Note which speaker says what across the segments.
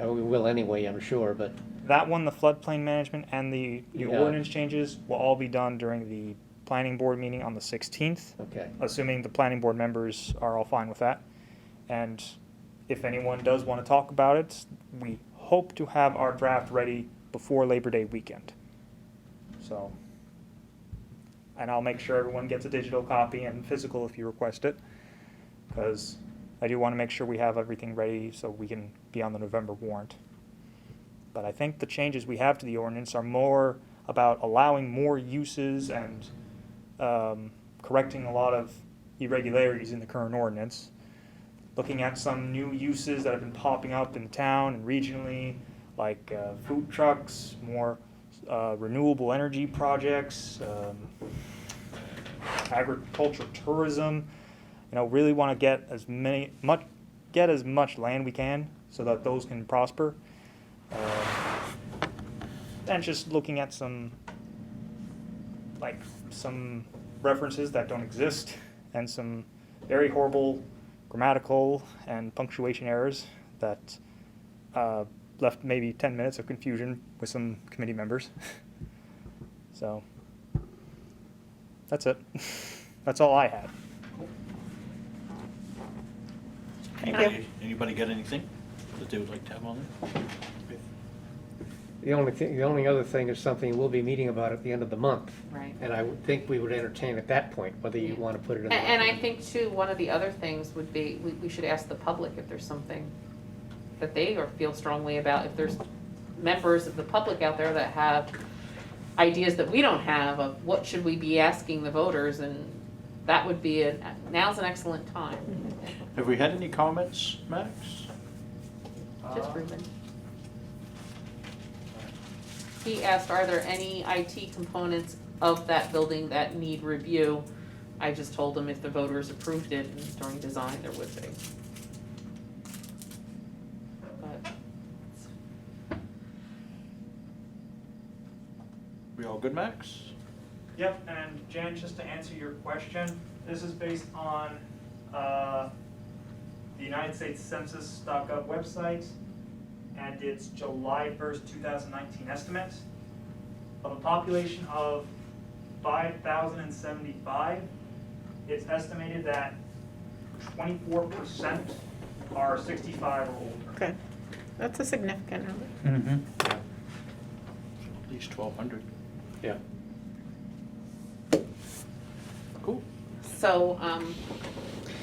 Speaker 1: Uh, We will anyway, I'm sure, but
Speaker 2: That one, the floodplain management and the, the
Speaker 1: Yeah.
Speaker 2: ordinance changes will all be done during the planning board meeting on the sixteenth,
Speaker 1: okay.
Speaker 2: assuming the planning board members are all fine with that. And if anyone does want to talk about it, we hope to have our draft ready before Labor Day weekend. So, and I'll make sure everyone gets a digital copy and physical if you request it, because I do want to make sure we have everything ready so we can be on the November warrant. But I think the changes we have to the ordinance are more about allowing more uses and um, correcting a lot of irregularities in the current ordinance, looking at some new uses that have been popping up in town and regionally, like uh, food trucks, more uh, renewable energy projects, um, agriculture, tourism. You know, really want to get as many much get as much land we can so that those can prosper. Um, and just looking at some like some references that don't exist and some very horrible grammatical and punctuation errors that uh, left maybe 10 minutes of confusion with some committee members. so that's it. that's all I had.
Speaker 3: Anybody anybody got anything that they would like to have on there?
Speaker 1: The only thing, the only other thing is something we'll be meeting about at the end of the month.
Speaker 4: Right.
Speaker 1: And I would think we would entertain at that point, whether you
Speaker 4: Yeah.
Speaker 1: want to put it in.
Speaker 4: And,
Speaker 1: the-
Speaker 4: and I think too, one of the other things would be, we, we should ask the public if there's something that they or feel strongly about, if there's members of the public out there that have ideas that we don't have of what should we be asking the voters and that would be, an- now's an excellent time,
Speaker 3: Have we had any comments, Max?
Speaker 4: just Ruben. He asked, are there any IT components of that building that need review? I just told him if the voters approved it during design, there would be. But
Speaker 3: We all good, Max?
Speaker 2: Yep, and Jan, just to answer your question, this is based on uh, the United States Census.gov website, and it's July 1st, 2019 estimate of a population of 5,075. It's estimated that 24% are 65 or older.
Speaker 5: Okay, that's a significant number.
Speaker 1: Mm-hmm.
Speaker 3: At least twelve hundred.
Speaker 1: Yeah.
Speaker 3: Cool.
Speaker 4: So, um,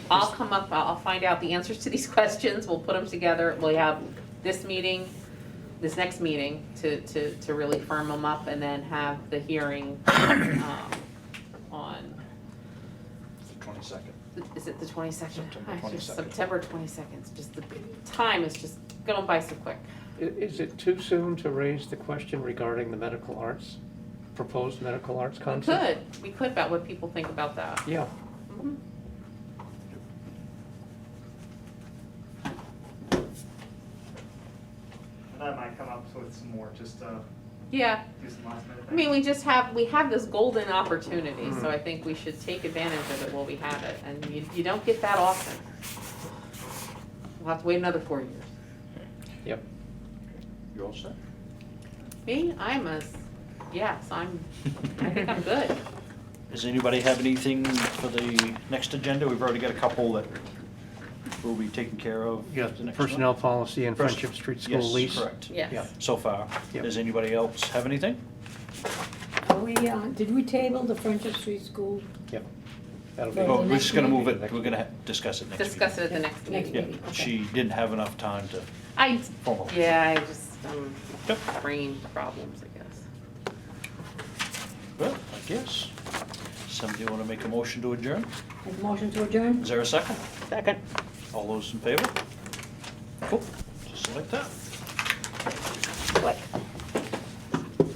Speaker 4: I'll come up, I'll I'll find out the answers to these questions, we'll put them together, we'll have this meeting, this next meeting to, to, to really firm them up and then have the hearing, um, on,
Speaker 3: Twenty-second.
Speaker 4: is it the twenty-second?
Speaker 3: September 22nd.
Speaker 4: September twenty-second, just the, time is just going by so quick.
Speaker 1: I- Is it too soon to raise the question regarding the medical arts, proposed medical arts
Speaker 4: We
Speaker 1: concept?
Speaker 4: could, we could about what people think about that.
Speaker 1: Yeah,
Speaker 4: Mhm.
Speaker 2: And I might come up with some more, just to
Speaker 4: Yeah,
Speaker 2: do some last minute
Speaker 4: I mean, we just have, we have this golden opportunity, so I think we should take advantage of it while we have it, and you, you don't get that often. We'll have to wait another four years.
Speaker 1: yep.
Speaker 3: You all set?
Speaker 4: Me, I'm a, s- yes, I'm, I think I'm good.
Speaker 3: Does anybody have anything for the next agenda? We've already got a couple that will be taken care of.
Speaker 1: Yeah,
Speaker 3: the next one.
Speaker 1: personnel policy and
Speaker 3: First-
Speaker 1: Friendship Street School lease.
Speaker 3: Yes, correct.
Speaker 1: Yeah.
Speaker 4: Yes.
Speaker 3: So far.
Speaker 1: Yep.
Speaker 3: Does anybody else have anything?
Speaker 6: Are we, uh, did we table the Friendship Street School
Speaker 1: Yep. That'll be.
Speaker 6: Well,
Speaker 3: Oh,
Speaker 6: the
Speaker 3: we're
Speaker 6: next
Speaker 3: just gonna move it,
Speaker 1: meeting.
Speaker 3: we're gonna ha- discuss it next week.
Speaker 4: Discuss it at the next
Speaker 6: Next
Speaker 4: meeting.
Speaker 3: Yeah,
Speaker 6: meeting, okay.
Speaker 3: she didn't have enough time to
Speaker 4: I,
Speaker 3: formally.
Speaker 4: yeah, I just, um,
Speaker 3: Yep.
Speaker 4: brain problems, I guess.
Speaker 3: Well, I guess. Somebody want to make a motion to adjourn?
Speaker 6: Make a motion to adjourn?
Speaker 3: Is there a second?
Speaker 5: Second.
Speaker 3: All those in favor? Cool, just like that.
Speaker 5: What?